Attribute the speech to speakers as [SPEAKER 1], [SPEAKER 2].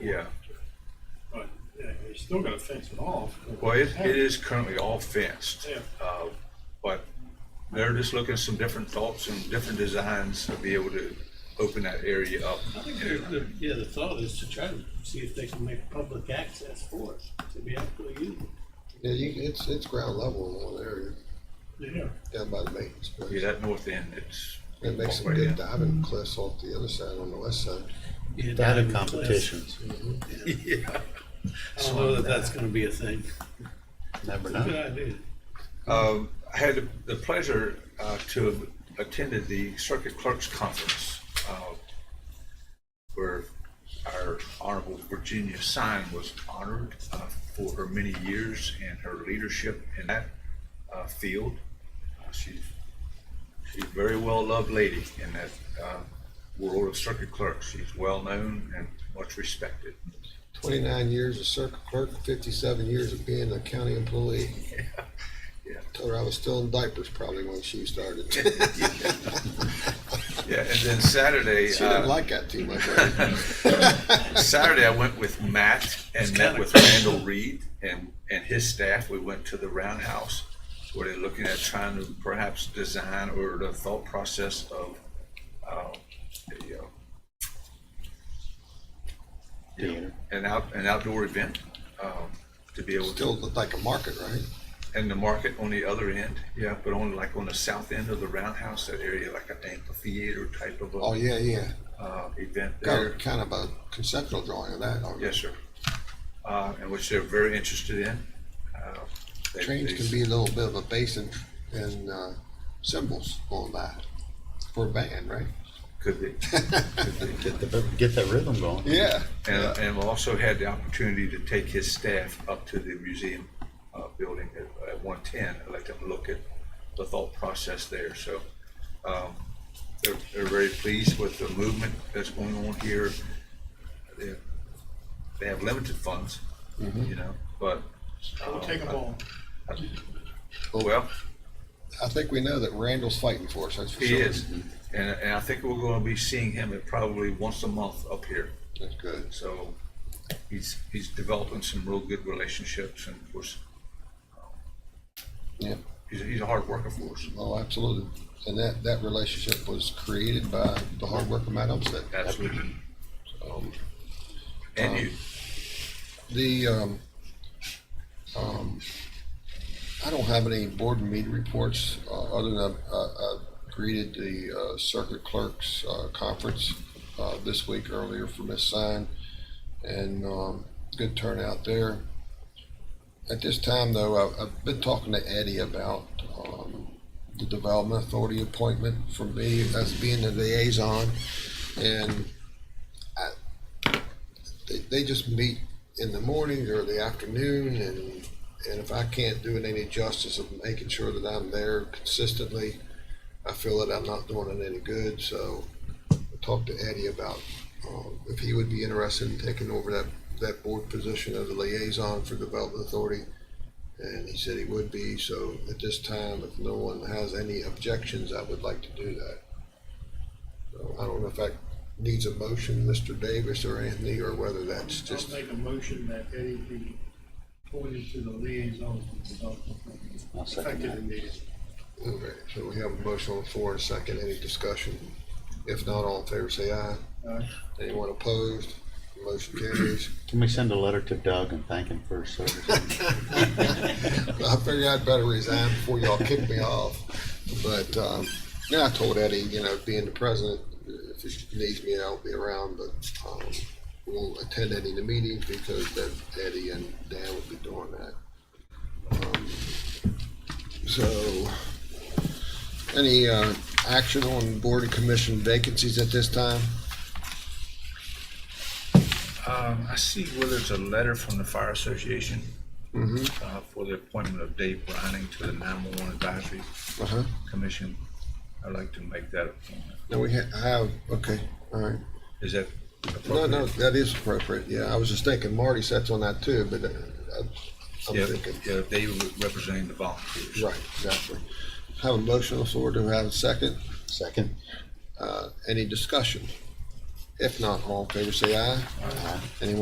[SPEAKER 1] Yeah,
[SPEAKER 2] But yeah, you still gotta fence it off.
[SPEAKER 1] well, it, it is currently all fenced.
[SPEAKER 2] Yeah.
[SPEAKER 1] Uh, but they're just looking at some different thoughts and different designs to be able to open that area up.
[SPEAKER 3] I think the, the, yeah, the thought is to try to see if they can make public access for it, to be able to use
[SPEAKER 4] Yeah, you, it's, it's ground level in one area,
[SPEAKER 2] Yeah,
[SPEAKER 4] down by the maintenance
[SPEAKER 1] Yeah,
[SPEAKER 4] place.
[SPEAKER 1] that north end, it's.
[SPEAKER 4] It makes some
[SPEAKER 1] Right,
[SPEAKER 4] good
[SPEAKER 1] yeah. Mm-hmm.
[SPEAKER 4] diving cliffs off the other side, on the west side.
[SPEAKER 3] it.
[SPEAKER 5] Data competitions,
[SPEAKER 3] Yeah. I don't know that that's gonna be a thing.
[SPEAKER 5] never
[SPEAKER 3] Good
[SPEAKER 5] know.
[SPEAKER 3] idea.
[SPEAKER 1] Um, I had the pleasure uh, to have attended the Circuit Clerks Conference uh, where our Honorable Virginia Sign was honored uh, for her many years and her leadership in that uh, field. Uh, She's she's a very well-loved lady in that uh, world of circuit clerks. She's well-known and much respected.
[SPEAKER 4] Twenty-nine years as circuit clerk, fifty-seven years of being a county employee.
[SPEAKER 1] Yeah.
[SPEAKER 4] Told her I was still in diapers probably when she started. She
[SPEAKER 1] Yeah, and then Saturday. uh,
[SPEAKER 4] didn't like that too much. I think.
[SPEAKER 1] Saturday, I went with Matt and met with Randall Reed and, and his staff. We went to the Roundhouse where they're looking at trying to perhaps design or the thought process of, uh, a, uh, you know,
[SPEAKER 5] Theater.
[SPEAKER 1] an out, an outdoor event, um, to be able
[SPEAKER 4] Still
[SPEAKER 1] to,
[SPEAKER 4] looked like a market, right?
[SPEAKER 1] and the market on the other end, yeah, but on like on the south end of the Roundhouse, that area, like an amphitheater type of
[SPEAKER 4] Oh,
[SPEAKER 1] a,
[SPEAKER 4] yeah, yeah.
[SPEAKER 1] uh, event
[SPEAKER 4] Got
[SPEAKER 1] there.
[SPEAKER 4] a- kind of a conceptual drawing of that.
[SPEAKER 1] Yes, sir. Uh, and which they're very interested in. Uh, they-
[SPEAKER 4] Trains
[SPEAKER 1] they-
[SPEAKER 4] can be a little bit of a bass and, and, uh, cymbals on that for a band, right?
[SPEAKER 1] Could be. Could be.
[SPEAKER 5] Get the, get that rhythm going.
[SPEAKER 4] Yeah.
[SPEAKER 1] And, uh, and we also had the opportunity to take his staff up to the museum, uh, building at, at one ten, and let them look at the thought process there, so, um, they're, they're very pleased with the movement that's going on here. They, they have limited funds,
[SPEAKER 4] Mm-hmm.
[SPEAKER 1] you know, but.
[SPEAKER 2] we'll take them all.
[SPEAKER 4] Oh,
[SPEAKER 1] Well,
[SPEAKER 4] I think we know that Randall's fighting for us, that's for
[SPEAKER 1] He
[SPEAKER 4] sure.
[SPEAKER 1] is, and, and I think we're gonna be seeing him at probably once a month up here,
[SPEAKER 4] That's good.
[SPEAKER 1] so he's, he's developing some real good relationships and of course,
[SPEAKER 4] Yeah.
[SPEAKER 1] he's, he's a hard worker for us.
[SPEAKER 4] Oh, absolutely. And that, that relationship was created by the hard work of Matt Olmsted.
[SPEAKER 1] Absolutely.
[SPEAKER 4] Um,
[SPEAKER 1] And you,
[SPEAKER 4] The, um, um, I don't have any board meeting reports, uh, other than I, I greeted the, uh, circuit clerks, uh, conference, uh, this week earlier for Miss Sign. And, um, good turnout there. At this time though, I, I've been talking to Eddie about, um, the Development Authority appointment for me as being the liaison. And I, they, they just meet in the morning or the afternoon and and if I can't do it any justice of making sure that I'm there consistently, I feel that I'm not doing it any good. So I talked to Eddie about um, if he would be interested in taking over that, that board position as a liaison for Development Authority. And he said he would be. So at this time, if no one has any objections, I would like to do that. So I don't know if that needs a motion, Mr. Davis or Anthony, or whether that's
[SPEAKER 2] Just
[SPEAKER 4] just,
[SPEAKER 2] make a motion that Eddie be appointed to the liaison to the development. authority,
[SPEAKER 5] I'll second
[SPEAKER 2] Effective
[SPEAKER 5] that.
[SPEAKER 2] immediately.
[SPEAKER 4] Okay, so we have a motion on the floor and a second. Any discussion? If not, all in favor, say aye.
[SPEAKER 2] Aye.
[SPEAKER 4] Anyone opposed? Motion carries.
[SPEAKER 5] Can we send a letter to Doug and thank him for his service?
[SPEAKER 4] I figured I'd better resign before y'all kick me off. But, um, yeah, I told Eddie, you know, being the president, if he needs me, I'll be around, but, um, we won't attend any of the meetings because then Eddie and Dan will be doing that. Um, So, any, uh, action on board and commission vacancies at this time?
[SPEAKER 1] um, I see whether it's a letter from the Fire Association
[SPEAKER 4] Mm-hmm.
[SPEAKER 1] uh, for the appointment of Dave Brining to the nine-one-one Advisory
[SPEAKER 4] Uh-huh.
[SPEAKER 1] Commission. I'd like to make that appointment.
[SPEAKER 4] No, we ha- have, okay, all right.
[SPEAKER 1] Is that
[SPEAKER 4] No,
[SPEAKER 1] appropriate?
[SPEAKER 4] no, that is appropriate, yeah, I was just thinking Marty sits on that too, but uh, I'm
[SPEAKER 1] Yeah,
[SPEAKER 4] I'm thinking,
[SPEAKER 1] yeah, Dave representing the volunteers.
[SPEAKER 4] right, exactly. Have a motion on the floor, do we have a second?
[SPEAKER 5] Second,
[SPEAKER 4] Uh, Any discussion? If not, all in favor, say aye.